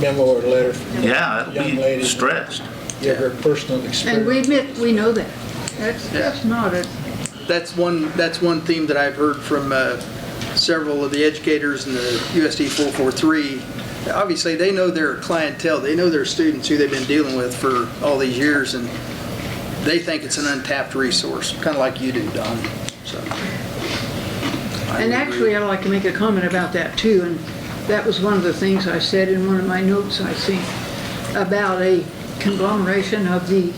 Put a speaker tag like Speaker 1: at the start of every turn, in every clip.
Speaker 1: memo or letter from
Speaker 2: Yeah,
Speaker 1: Young
Speaker 2: it'd be
Speaker 1: lady.
Speaker 2: stressed.
Speaker 1: your her personal
Speaker 3: And we
Speaker 1: experience.
Speaker 3: admit, we know that. That's, that's not it.
Speaker 4: That's one, that's one theme that I've heard from uh, several of the educators in the USD 443. Obviously, they know their clientele, they know their students who they've been dealing with for all these years, and they think it's an untapped resource, kind of like you do, Don, so. I
Speaker 3: And
Speaker 4: would agree.
Speaker 3: actually, uh, I'd like to make a comment about that too, and that was one of the things I said in one of my notes, I think, about a conglomeration of the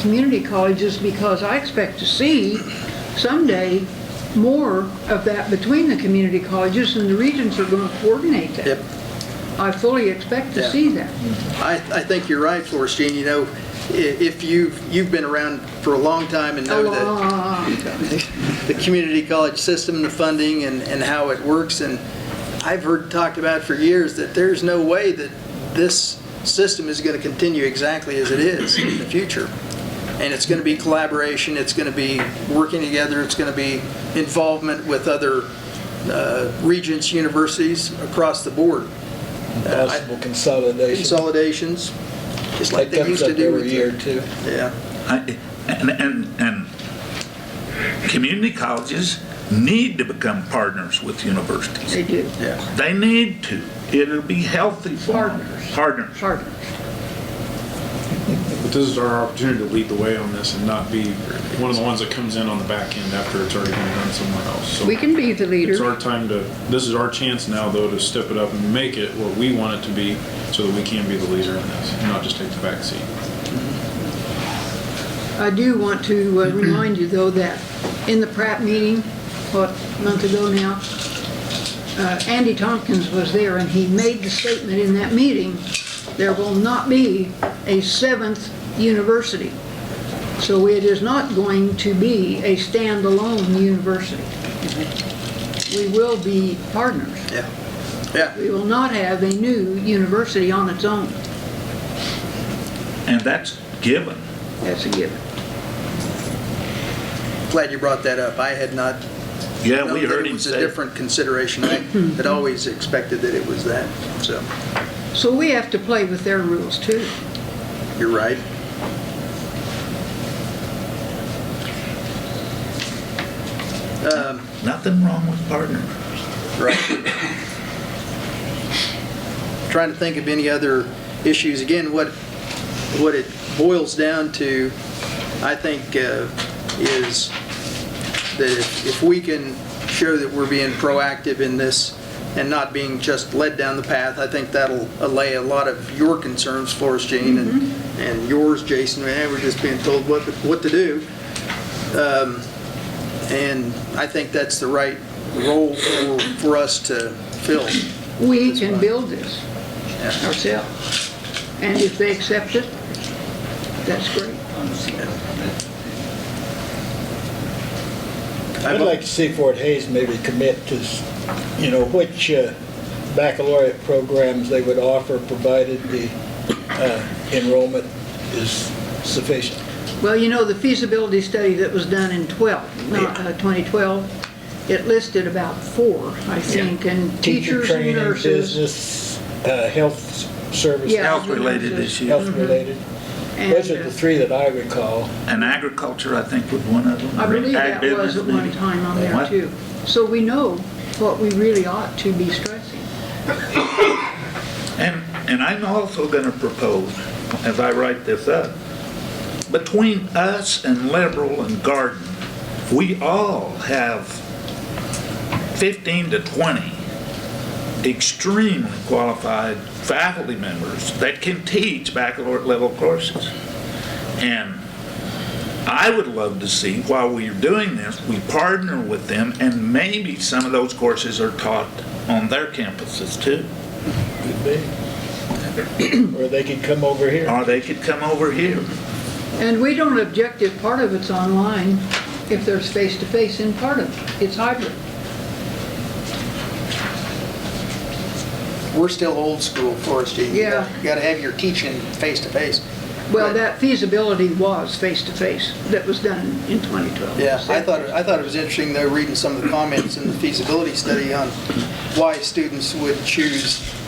Speaker 3: community colleges, because I expect to see someday more of that between the community colleges, and the regions are going to coordinate that.
Speaker 4: Yep.
Speaker 3: I fully expect to
Speaker 4: Yeah.
Speaker 3: see that.
Speaker 4: I, I think you're right, Florstein, you know, i- if you've, you've been around for a long time and know that the community college system, the funding and, and how it works, and I've heard talked about for years that there's no way that this system is going to continue exactly as it is in the future. And it's going to be collaboration, it's going to be working together, it's going to be involvement with other uh, regents, universities across the board.
Speaker 1: Possible consolidation.
Speaker 4: Consolidations, just
Speaker 1: That
Speaker 4: like they
Speaker 1: comes
Speaker 4: used to
Speaker 1: up
Speaker 4: do
Speaker 1: every
Speaker 4: with the
Speaker 1: year too.
Speaker 4: yeah,
Speaker 2: I- And, and, and community colleges need to become partners with universities.
Speaker 3: They do,
Speaker 4: yeah.
Speaker 2: They need to. It'll be healthy for them.
Speaker 3: Partners.
Speaker 2: Partners.
Speaker 3: Hard.
Speaker 5: But this is our opportunity to lead the way on this and not be one of the ones that comes in on the back end after it's already been done somewhere else. So
Speaker 3: We can be the
Speaker 5: It's
Speaker 3: leader.
Speaker 5: our time to, this is our chance now though to step it up and make it what we want it to be so that we can be the leader in this and not just take the back seat.
Speaker 3: I do want to uh, remind you, though, that in the Pratt meeting, what, a month ago now, uh, Andy Tompkins was there, and he made the statement in that meeting, there will not be a seventh university. So it is not going to be a standalone university. We will be partners.
Speaker 4: Yeah, yeah.
Speaker 3: We will not have a new university on its own.
Speaker 2: And that's given.
Speaker 3: That's a given.
Speaker 4: Glad you brought that up. I had not
Speaker 2: Yeah,
Speaker 4: known
Speaker 2: we
Speaker 4: that
Speaker 2: heard
Speaker 4: it
Speaker 2: him
Speaker 4: was a
Speaker 2: say.
Speaker 4: different consideration. I had always expected that it was that, so
Speaker 3: So we have to play with their rules, too.
Speaker 4: you're right. Um,
Speaker 2: Nothing wrong with partners.
Speaker 4: Right. Trying to think of any other issues. Again, what, what it boils down to, I think, uh, is that if if we can show that we're being proactive in this and not being just led down the path, I think that'll allay a lot of your concerns, Florence Jean, and, and yours, Jason. Man, we're just being told what, what to do. And I think that's the right role for, for us to fill.
Speaker 3: We can build this ourselves. And if they accept it, that's great.
Speaker 1: I'd like to see Fort Hayes maybe commit to, s- you know, which uh, baccalaureate programs they would offer, provided the uh, enrollment is sufficient.
Speaker 3: Well, you know, the feasibility study that was done in 12, not, uh, 2012, it listed about four, I think, and
Speaker 1: Teacher
Speaker 3: teachers and
Speaker 1: training,
Speaker 3: nurses.
Speaker 1: business, uh, health s- services,
Speaker 3: Yeah. Mm-hmm.
Speaker 2: Health-related issues.
Speaker 1: health-related.
Speaker 3: and,
Speaker 1: Those are the
Speaker 3: uh,
Speaker 1: three that I recall.
Speaker 2: And agriculture, I think, was one of them.
Speaker 3: I believe that was
Speaker 2: Agribusiness,
Speaker 3: at one
Speaker 2: maybe.
Speaker 3: time on there
Speaker 2: What?
Speaker 3: too. So we know what we really ought to be stressing.
Speaker 2: And, and I'm also going to propose, as I write this up, between us and Liberal and Garden, we all have 15 to 20 extremely qualified faculty members that can teach baccalaureate level courses. And I would love to see, while we're doing this, we partner with them, and maybe some of those courses are taught on their campuses too.
Speaker 1: Could be. Or they could come over here.
Speaker 2: Or they could come over here.
Speaker 3: And we don't object if part of it's online, if there's face-to-face in part of it. It's hybrid.
Speaker 4: We're still old school, Forest Gene. You
Speaker 3: Yeah.
Speaker 4: gotta- You gotta have your teaching face to face.
Speaker 3: Well,
Speaker 4: But-
Speaker 3: that feasibility was face-to-face that was done in 2012.
Speaker 4: Yeah, I thought, I thought it was interesting though, reading some of the comments in the feasibility study on why students would choose